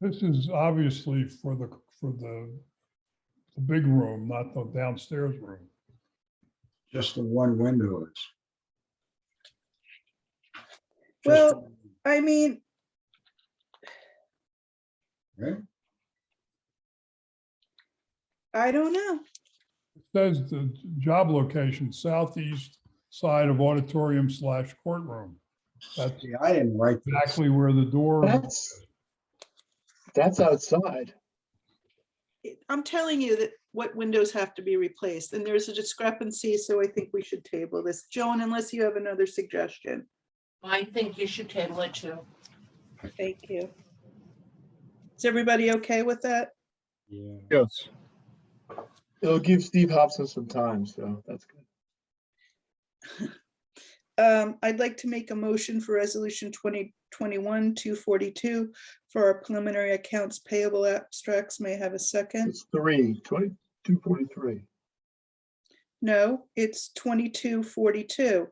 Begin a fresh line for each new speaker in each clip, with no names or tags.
This is obviously for the, for the, the big room, not the downstairs room.
just the one window is. Just
Well-
one,
I mean,
Right?
I don't know.
It Says the job location, southeast side of auditorium slash courtroom. That's
See, I didn't write that.
exactly where the door,
That's, that's outside.
It- I'm telling you that what windows have to be replaced and there's a discrepancy, so I think we should table this. Joan, unless you have another suggestion.
I think you should table it too.
Thank you. Is everybody okay with that?
Yeah.
Yes. It'll give Steve Hobson some time, so that's good.
Um, I'd like to make a motion for resolution twenty twenty-one, two forty-two for our preliminary accounts payable abstracts. May I have a second?
It's three, twenty, two forty-three.
No, it's twenty-two forty-two.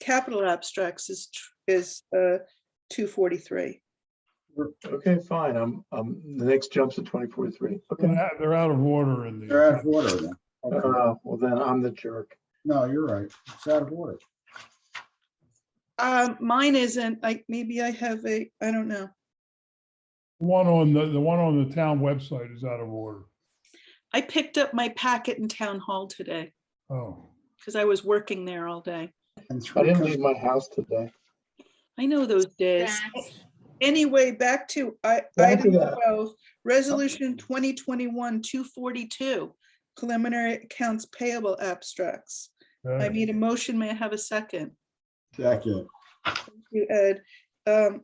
Capital abstracts is, tr- is, uh, two forty-three.
Okay, fine. I'm, um, the next jump's at twenty forty-three. Okay.
they're out of order in
They're out
the,
of order then. Okay.
Uh, well, then I'm the jerk.
No, you're right. It's out of order.
Um, mine isn't, like, maybe I have a, I don't know.
one on the, the one on the town website is out of order.
I picked up my packet in town hall today
Oh,
because I was working there all day.
And
I
three
didn't
comes-
leave my house today.
I know those days. Anyway, back to I,
Back to
item
that.
twelve, resolution twenty twenty-one, two forty-two, preliminary accounts payable abstracts. I
okay.
need a motion. May I have a second?
second.
Thank you, Ed. Um,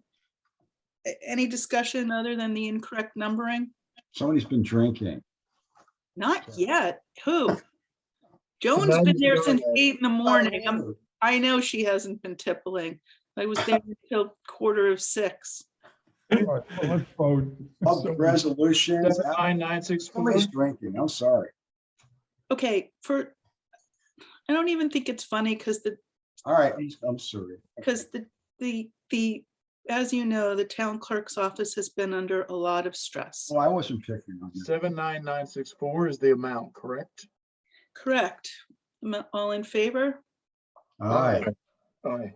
a- any discussion other than the incorrect numbering?
Somebody's been drinking.
Not
Sure.
yet. Who? Joan's
now
been
you
there
know
since
that.
eight in the morning.
Oh.
I'm- I know she hasn't been tippling. I was there until quarter of six.
All right, well, Let's vote.
Of
So-
the resolutions,
Seven
out-
nine nine six four.
somebody's drinking. I'm sorry.
Okay, for, I don't even think it's funny because the,
All right, I'm- I'm sorry.
because the, the, the, as you know, the town clerk's office has been under a lot of stress.
Well, I wasn't picking on you.
Seven nine nine six four is the amount, correct?
Correct. Am I All in favor?
All right,
Aye.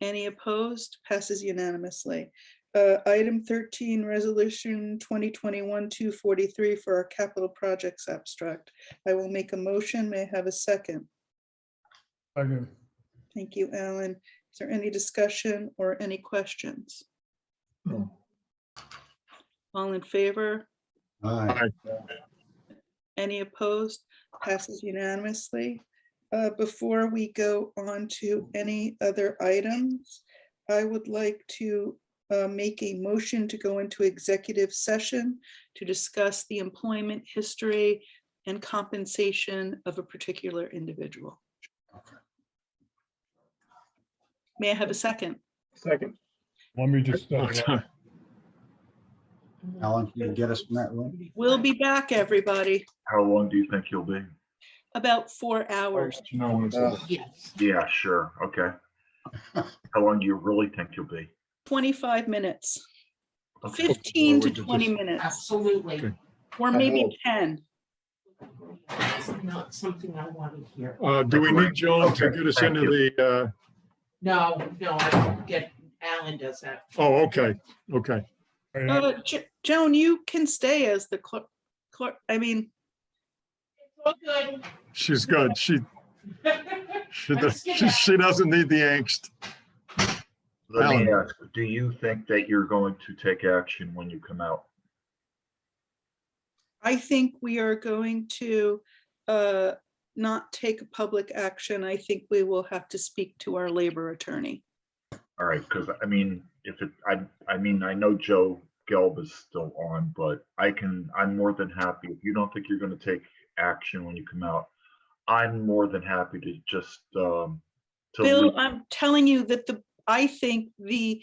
Any opposed? Passes unanimously. Uh, Item 13, Resolution 2021-243 for our capital projects abstract. I will make a motion. May I have a second?
Second.
Thank you, Alan. Is there any discussion or any questions?
No.
All in favor?
all right.
Any opposed? Passes unanimously. Uh, Before we go on to any other items, I would like to uh, make a motion to go into executive session to discuss the employment history and compensation of a particular individual. May I have a second?
Second.
Let me just, step it up.
Alan, can you get us from that one?
We'll be back, everybody,
How long do you think you'll be?
about four hours.
Uh,
Yes.
Yeah, sure. Okay. How long do you really think you'll be?
25 minutes,
Okay.
15 to 20 minutes,
Absolutely.
or maybe 10.
It's Not something I want to hear.
Uh, do we need Joan to get us
Okay, thank
into the, uh,
No, no, I don't get, Alan does that.
oh, okay, okay.
All right,
Uh, Jo- Joan, you can stay as the clerk, clerk, I mean,
All good.
She's good. She, she, does- she she doesn't need the angst.
Let me ask, do you think that you're going to take action when you come out?
I think we are going to uh, not take a public action. I think we will have to speak to our labor attorney.
All right, because I mean, if it, I, I mean, I know Joe Gelb is still on, but I can, I'm more than happy. If you don't think you're going to take action when you come out, I'm more than happy to just, um, to
Bill,
leave.
I'm telling you that the, I think the,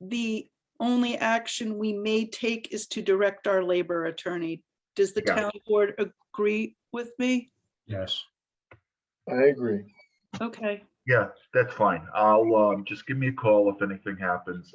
the only action we may take is to direct our labor attorney. Does the
Got it.
town board agree with me?
Yes.
I agree.
Okay.
Yeah, that's fine. I'll, um, just give me a call if anything happens.